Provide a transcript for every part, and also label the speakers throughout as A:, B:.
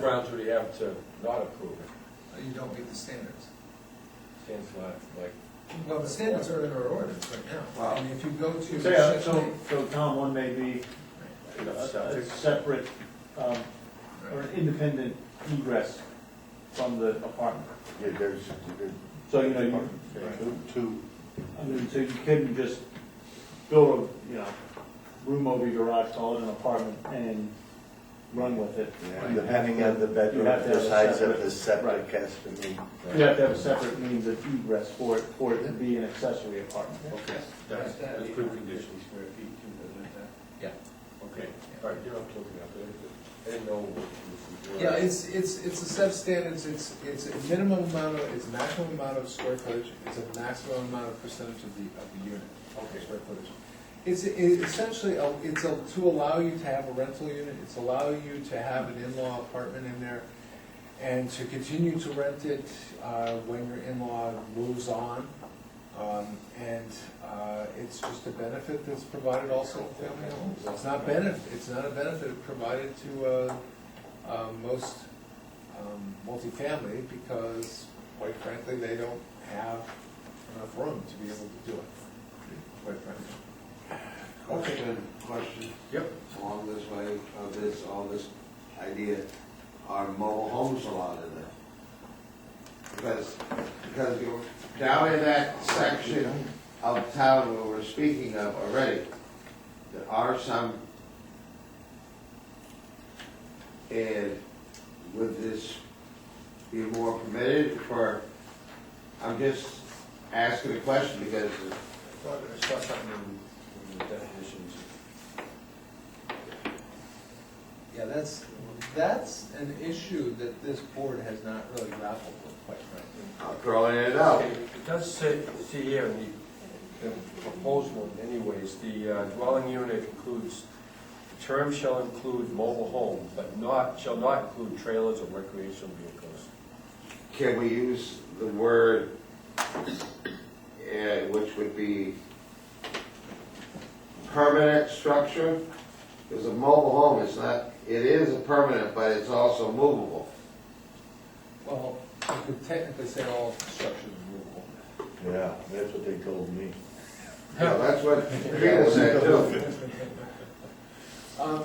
A: grounds would he have to not approve it?
B: Uh, You don't meet the standards.
A: Stands not like.
B: Well, the standards are in our ordinance right now. I mean, if you go to.
C: So, yeah, so, so Tom, one may be a-
A: you know,
C: a
A: it's-
C: separate, um, or
B: Right.
C: an independent egress from the apartment.
D: Yeah, there's, there's
C: So, you know, you,
D: two- two,
C: I mean, so you couldn't just build a, you know, room over your garage, call it an apartment, and run with it.
D: and depending on the bedroom,
C: You have to have
D: the
C: a
D: size of
C: separate-
D: the septic
C: right.
D: has to be.
C: You have to have a separate means of egress for it, for it to be an accessory apartment.
A: Okay, that's, that's good condition. Square feet too, doesn't it?
B: Yeah.
A: Okay, all right, you don't have to look it up, I didn't know what you were.
B: Yeah, it's, it's, it's a set of standards, it's, it's a minimum amount of, it's maximum amount of square footage, it's a maximum amount of percentage of the, of the unit, okay, square footage. It's, it's essentially, a- it's a- to allow you to have a rental unit, it's allow you to have an in-law apartment in there, and to continue to rent it uh, when your in-law moves on. Um, And uh, it's just a benefit that's provided also to family homes. It's not benefit, it's not a benefit provided to uh, uh, most um, multifamily because quite frankly, they don't have enough room to be able to do it, quite frankly.
E: Question, question.
A: Yep.
E: Along this way of this, all this idea, are mobile homes allowed in there? Because, because you're down in that section of town where we're speaking of already, there are some. And would this be more permitted for, I'm just asking a question because
A: Well, I saw something in in the definitions.
B: Yeah, that's, that's an issue that this board has not really grappled with, quite frankly.
E: I'm throwing it out.
A: Okay, It does say, see here in the, the proposed one anyways, the uh, dwelling unit includes, the term shall include mobile home, but not, shall not include trailers or recreational vehicles.
E: Can we use the word, eh, which would be permanent structure? Because a mobile home is not, it is a permanent, but it's also movable.
B: Well, you could technically say all structures are movable.
D: Yeah, that's what they told me.
E: Yeah, That's what Peter said too.
B: Um,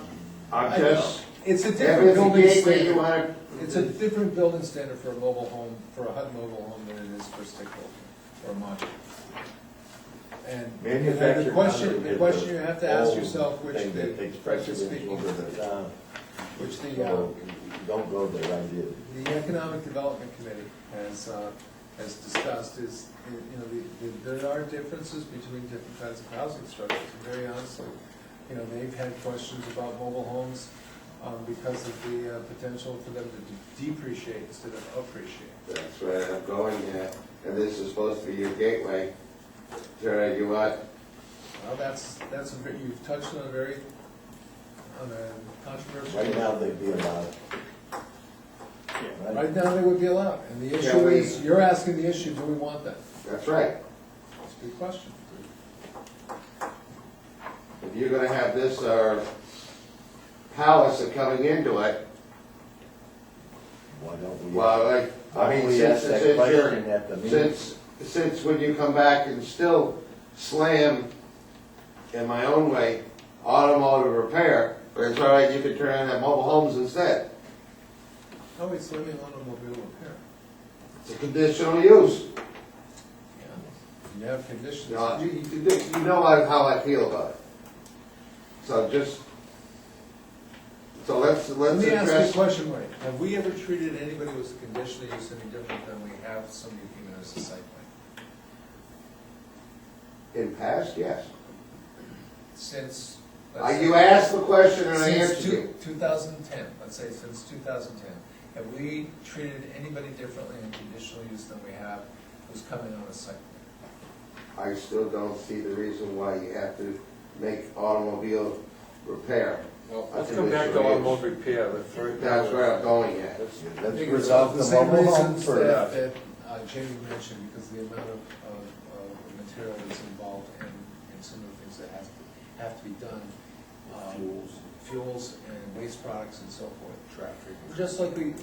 E: I'm
B: I don't
E: just,
B: know. It's a
E: if it's
B: different
E: a
B: building
E: gateway, you
B: standard.
E: wanna,
B: It's a different building standard for a mobile home, for a HUD mobile home than it is for a stick building or a modular. And and the
D: Manufactured
B: question,
D: housing
B: the
D: is
B: question
D: the
B: you have to ask
D: old
B: yourself, which
D: thing that
B: the,
D: takes
B: frankly
D: precedence
B: speaking,
D: over the town.
B: which the, uh,
D: So, Don't go there, I did.
B: the Economic Development Committee has, uh, has discussed is, you know, the- the- there are differences between different kinds of housing structures, and very honestly. You know, they've had questions about mobile homes um, because of the uh, potential for them to de- depreciate instead of appreciate.
E: that's where I'm going at. And this is supposed to be your gateway. Tara, you want
B: Well, that's, that's, a ve- you've touched on a very, on a controversial.
D: Right now, they'd be allowed. Right?
B: Right now, they would be allowed, and the
E: Can
B: issue
E: we-
B: is, you're asking the issue, do we want that?
E: that's right.
B: That's a good question.
E: if you're gonna have this, uh, palace coming into it,
D: Why don't we?
E: well, like,
D: Why
E: I
D: don't
E: mean,
D: we
E: since,
D: ask
E: since
D: that
E: you're,
D: question at the meeting?
E: since, since when you come back and still slam, in my own way, automotive repair, but it's all right, you can turn on that mobile homes instead.
B: Oh, wait, so let me on a mobile repair.
E: It's a conditional use.
B: You have conditions.
E: You know, you, you do- you know how how I feel about it. So just, so let's,
B: Let
E: let's
B: me ask you a
E: address,
B: question, Mike. Have we ever treated anybody with a conditional use any different than we have somebody who came in as a site plan?
E: in past, yes.
B: Since. let's
E: Uh,
B: say-
E: You asked the question and I
B: Since
E: answered you.
B: two, two thousand and ten, let's say since two thousand and ten, have we treated anybody differently in conditional use than we have who's coming on a site plan?
E: I still don't see the reason why you have to make automobile repair.
A: Well,
E: I
A: let's
E: think
A: come
E: they
A: back to
E: should
A: automotive repair, the first.
E: That's where I'm going at.
A: That's-
D: Yeah,
B: I
D: Let's
B: think it's
D: resolve the
B: same
D: mobile home
B: reasons
D: first.
B: That that, uh, Jamie mentioned, because the amount of, of, of material that's involved and, and some of the things that have to, have to be done. um,
D: Fuels.
B: fuels and waste products and so forth. Traffic. Just like we,